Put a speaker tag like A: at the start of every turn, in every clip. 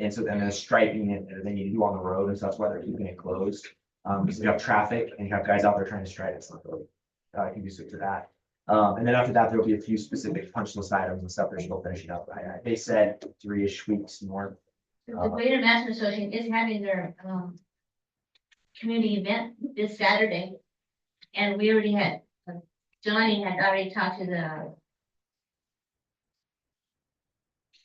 A: and so then there's striping it that they need to do on the road, and so that's why they're keeping it closed. Um, because we have traffic and you have guys out there trying to stripe, it's not really, uh, conducive to that. Um, and then after that, there'll be a few specific punch list items and stuff that she'll finish it up. I, I, they said three-ish weeks more.
B: The Greater Madison Association is having their, um, community event this Saturday. And we already had, uh, Johnny had already talked to the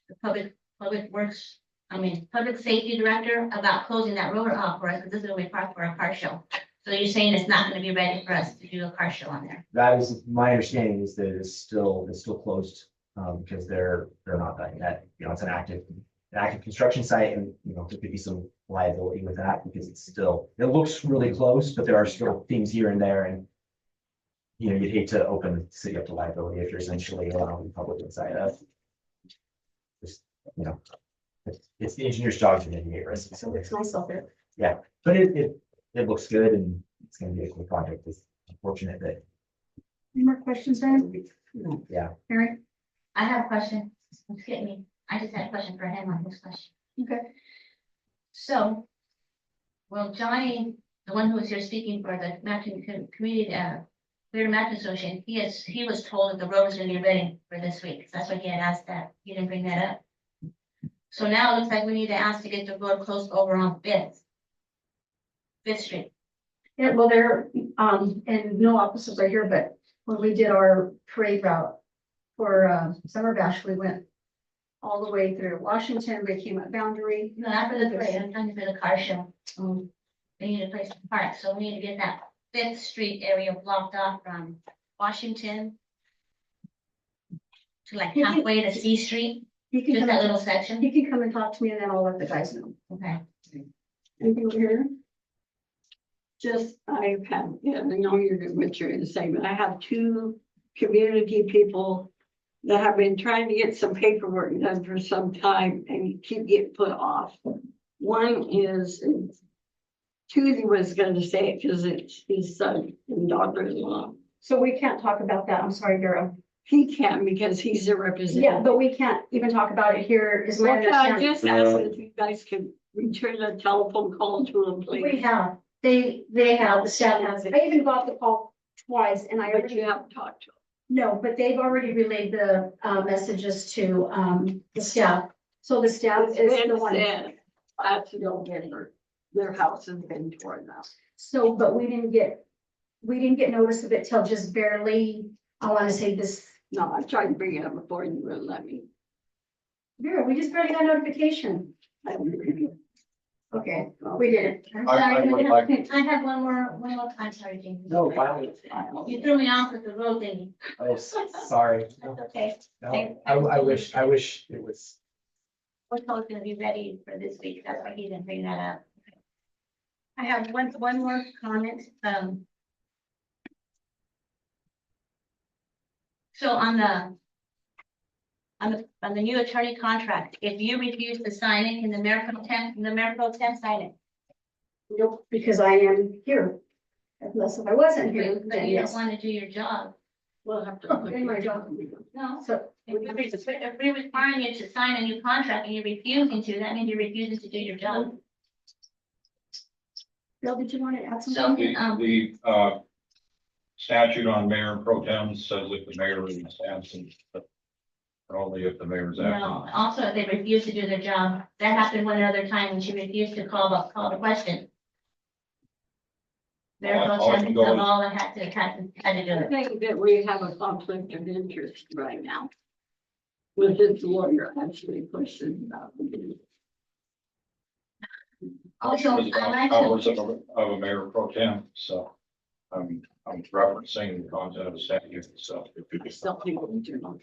B: the public, public works, I mean, public safety director about closing that road off for us, because this is gonna be parked for a car show. So you're saying it's not gonna be ready for us to do a car show on there?
A: That is, my understanding is that it's still, it's still closed, um, because they're, they're not done yet. You know, it's an active, an active construction site and, you know, there could be some liability with that because it's still, it looks really close, but there are still things here and there and you know, you'd hate to open the city up to liability if you're essentially allowing the public inside of. Just, you know, it's, it's the engineer's job to mitigate risk.
C: So it's nice out there.
A: But it, it, it looks good and it's gonna be a cool project. It's unfortunate that,
D: Any more questions, Ryan?
A: yeah.
D: Mary?
B: I have a question, excuse me, I just had a question for him on this question.
D: Okay.
B: So, well, Johnny, the one who was here speaking for the Mountain Com- Community, uh, Greater Mountain Association, he is, he was told that the road was gonna be ready for this week, that's why he had asked that, he didn't bring that up. So now it looks like we need to ask to get the road closed over on Fifth. Fifth Street,
D: Yeah, well, there, um, and no officers are here, but when we did our parade route for, uh, Summer Bash, we went all the way through Washington, we came up Boundary.
B: no, not for the parade, I'm talking for the car show.
D: um,
B: They need a place to park, so we need to get that Fifth Street area blocked off from Washington. To like
D: You can-
B: halfway to C Street,
D: You can
B: just
D: come,
B: that
D: and-
B: little section,
D: you can come and talk to me and then I'll let the guys know.
B: okay,
D: Anything over here?
C: Just, I have, yeah, I know you're, what you're saying, but I have two community people that have been trying to get some paperwork done for some time and keep getting put off. One is, Tuesday was gonna say it because it's his son and daughter-in-law.
D: So we can't talk about that. I'm sorry, Vera.
C: He can because he's a representative.
D: Yeah, but we can't even talk about it here is my
C: Okay, I
D: understanding.
C: just asked if you guys can return a telephone call to him,
D: We
C: please.
D: have, they, they have, the staff has,
C: it.
D: I even got the call twice and I
C: But
D: already
C: you haven't talked to him.
D: No, but they've already relayed the uh messages to um the staff. So the staff is the
C: It's
D: one.
C: been said, That's November. Their house has been torn up.
D: So, but we didn't get, we didn't get notice of it till just barely, I want to say this,
C: No, I tried to bring it up before and you wouldn't let me.
D: Vera, we just barely got notification. Okay, we didn't.
B: I'm
E: I- I
B: sorry,
E: would
B: we
E: like-
B: have- I have one more, one more, I'm sorry, Jamie.
A: No, finally.
B: You threw me off with the road thing,
A: Oh, s- sorry.
B: that's okay,
A: No, I, I wish, I wish it was,
B: we're probably gonna be ready for this week, that's why he didn't bring that up. I have one, one more comment, um. So on the. On the, on the new attorney contract, if you refuse to sign it, can the mayor pro tem, the mayor pro tem sign it?
D: Nope, because I am here. Unless if I wasn't here,
B: But
D: then
B: you don't
D: yes.
B: wanna do your job,
C: We'll have to. look
D: Oh, In my job.
B: no?
D: So
B: If we're re- if we're requiring you to sign a new contract and you're refusing to, that means you're refusing to do your job.
D: Bill, did you want to add
B: So-
D: something?
E: The, the, uh, statute on mayor and pro tem says if the mayor is absent, but only if the mayor's
B: No,
E: absent.
B: also, if they refuse to do their job, that happened one other time, and she refused to call, the call the question. There
E: Well,
B: was
E: all I
B: all
E: can go is-
B: that had to, had to, had to do
C: I
B: it.
C: think that we have a conflict of interest right now. With his lawyer actually pushing about.
B: Also,
E: It's about
B: I like
E: Powers of,
B: to,
E: a- of a mayor pro tem, so, I'm, I'm referencing the content of the statute, so.
C: Some people do not.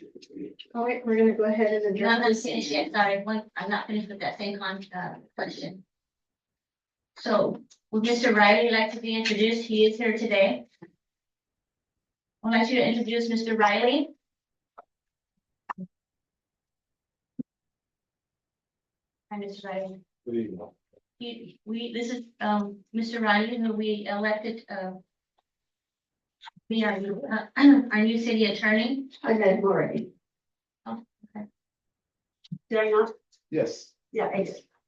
D: All right, we're gonna go ahead and
B: no, I'm
D: adjourn.
B: not finished yet, sorry, one, I'm not finished with that same con, uh, question. So, would Mr. Riley like to be introduced? He is here today. I'd like you to introduce Mr. Riley. Hi, Mr. Riley. He, we, this is, um, Mr. Riley, who we elected, uh. Be our new, uh, our new city attorney.
D: I met him already.
B: Oh, okay.
D: Did I not?
E: Yes.
D: Yeah, I did.